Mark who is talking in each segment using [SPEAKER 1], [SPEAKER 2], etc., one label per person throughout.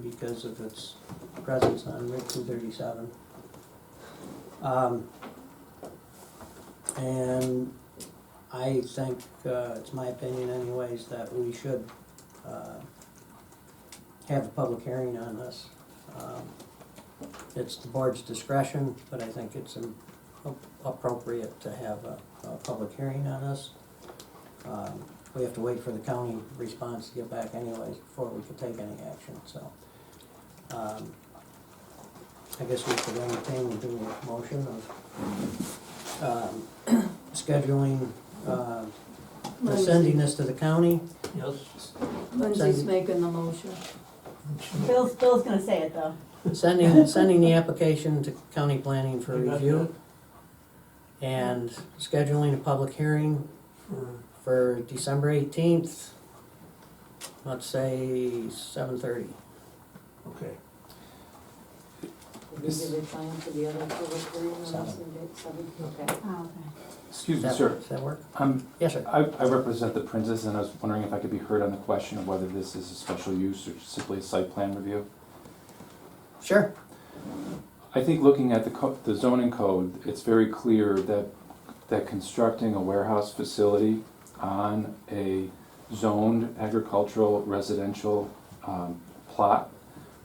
[SPEAKER 1] because of its presence on Route two thirty-seven. Um, and I think, uh, it's my opinion anyways, that we should, uh, have a public hearing on this. Um, It's the board's discretion, but I think it's um, ap- appropriate to have a, a public hearing on this. Um, We have to wait for the county response to get back anyways before we can take any action, so. um, I guess we could entertain and do a motion of, um, scheduling, uh, sending this to the county.
[SPEAKER 2] Yes.
[SPEAKER 3] Lindsay's making the motion.
[SPEAKER 4] Bill's, Bill's gonna say it though.
[SPEAKER 1] Sending, sending the application to county planning for review and scheduling a public hearing
[SPEAKER 2] For,
[SPEAKER 1] for December eighteenth, let's say seven thirty.
[SPEAKER 2] okay.
[SPEAKER 5] Is there a time for the other public hearing on
[SPEAKER 1] Seven.
[SPEAKER 5] some date, seven, okay.
[SPEAKER 4] Oh, okay.
[SPEAKER 6] Excuse me, sir.
[SPEAKER 1] Does that work?
[SPEAKER 6] Um,
[SPEAKER 1] Yes, sir.
[SPEAKER 6] I, I represent the Princess, and I was wondering if I could be heard on the question of whether this is a special use or simply a site plan review.
[SPEAKER 1] Sure.
[SPEAKER 6] I think looking at the co- the zoning code, it's very clear that, that constructing a warehouse facility on a zoned agricultural residential, um, plot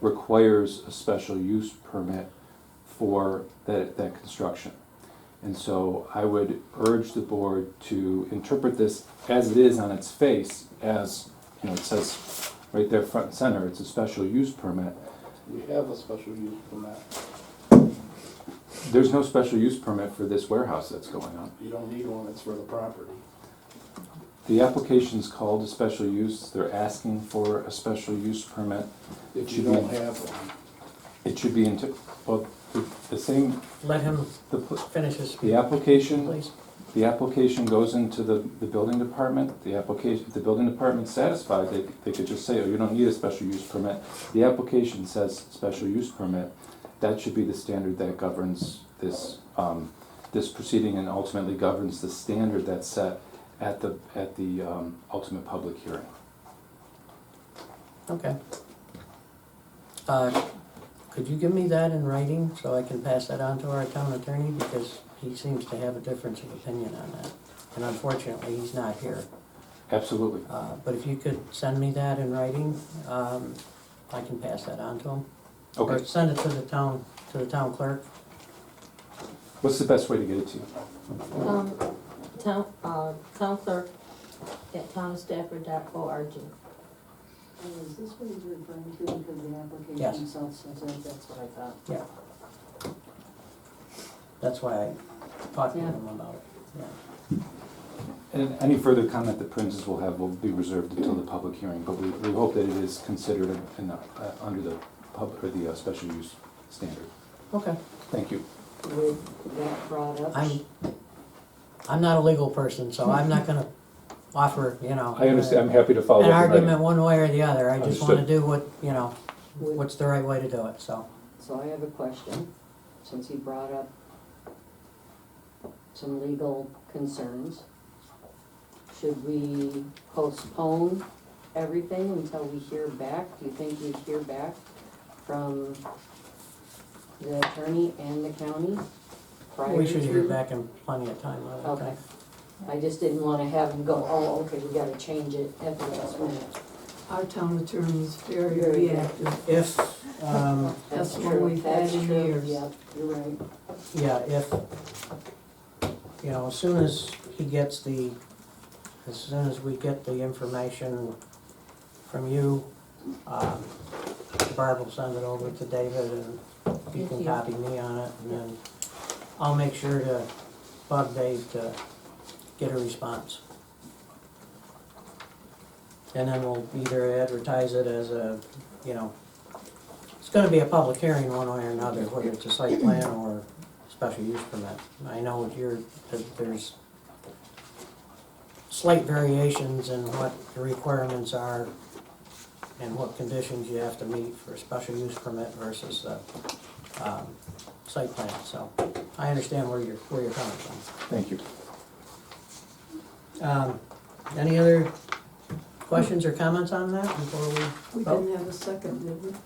[SPEAKER 6] requires a special use permit for that, that construction. And so I would urge the board to interpret this as it is on its face, as, you know, it says right there front and center, it's a special use permit.
[SPEAKER 7] We have a special use permit.
[SPEAKER 6] There's no special use permit for this warehouse that's going on.
[SPEAKER 7] You don't need one, it's for the property.
[SPEAKER 6] The application's called a special use, they're asking for a special use permit. It
[SPEAKER 7] If you
[SPEAKER 6] should
[SPEAKER 7] don't
[SPEAKER 6] be,
[SPEAKER 7] have one,
[SPEAKER 6] it should be into, well, the- the same,
[SPEAKER 1] Let him
[SPEAKER 6] the, pl-
[SPEAKER 1] finish his,
[SPEAKER 6] the application,
[SPEAKER 1] please.
[SPEAKER 6] the application goes into the, the building department, the application, the building department's satisfied, they, they could just say, oh, you don't need a special use permit. The application says special use permit, that should be the standard that governs this, um, this proceeding and ultimately governs the standard that's set at the, at the, um, ultimate public hearing.
[SPEAKER 1] Okay. Uh, Could you give me that in writing so I can pass that on to our town attorney? Because he seems to have a difference of opinion on that. And unfortunately, he's not here.
[SPEAKER 6] Absolutely.
[SPEAKER 1] Uh, But if you could send me that in writing, um, I can pass that on to him. Or
[SPEAKER 6] Okay.
[SPEAKER 1] send it to the town, to the town clerk.
[SPEAKER 6] What's the best way to get it to you?
[SPEAKER 5] Um, town, uh, town clerk at townofstafford.org.
[SPEAKER 8] Oh, Is this what he's referring to, because the
[SPEAKER 1] Yes.
[SPEAKER 8] application itself says that, that's what I thought.
[SPEAKER 1] That's why I talked to
[SPEAKER 5] Yeah.
[SPEAKER 1] him about it. Yeah.
[SPEAKER 6] And any further comment the Princes will have will be reserved until the public hearing, but we, we hope that it is considered in the, uh, under the pub, or the uh, special use standard.
[SPEAKER 1] Okay.
[SPEAKER 6] Thank you.
[SPEAKER 5] With that brought up.
[SPEAKER 1] I'm, I'm not a legal person, so I'm not gonna offer, you know.
[SPEAKER 6] I understand, I'm happy to follow up.
[SPEAKER 1] An
[SPEAKER 6] in writing.
[SPEAKER 1] argument one way or the other. I just wanna
[SPEAKER 6] Understood.
[SPEAKER 1] do what, you know,
[SPEAKER 5] With-
[SPEAKER 1] what's the right way to do it, so.
[SPEAKER 5] So I have a question, since he brought up some legal concerns. Should we postpone everything until we hear back? Do you think we'd hear back from the attorney and the county prior to?
[SPEAKER 1] We should hear back in plenty of time. I would
[SPEAKER 5] Okay.
[SPEAKER 1] think.
[SPEAKER 5] I just didn't wanna have him go, oh, okay, we gotta change it at the last minute.
[SPEAKER 3] Our town attorney's very
[SPEAKER 5] Very
[SPEAKER 3] reactive.
[SPEAKER 1] If, um,
[SPEAKER 3] That's what we've had
[SPEAKER 5] That's
[SPEAKER 3] in
[SPEAKER 5] true,
[SPEAKER 3] years.
[SPEAKER 5] Yep, you're right.
[SPEAKER 1] Yeah, if, you know, as soon as he gets the, as soon as we get the information from you, um, Barb will send it over to David and he
[SPEAKER 5] Thank
[SPEAKER 1] can
[SPEAKER 5] you.
[SPEAKER 1] copy me on it and then I'll make sure to bug Dave to get a response. And then we'll either advertise it as a, you know, it's gonna be a public hearing one way or another, whether it's a site plan or special use permit. I know you're, that there's slight variations in what the requirements are and what conditions you have to meet for a special use permit versus a, um, site plan, so I understand where you're, where you're coming from.
[SPEAKER 6] Thank you.
[SPEAKER 1] Um, any other questions or comments on that before we
[SPEAKER 3] We didn't have a second, did we?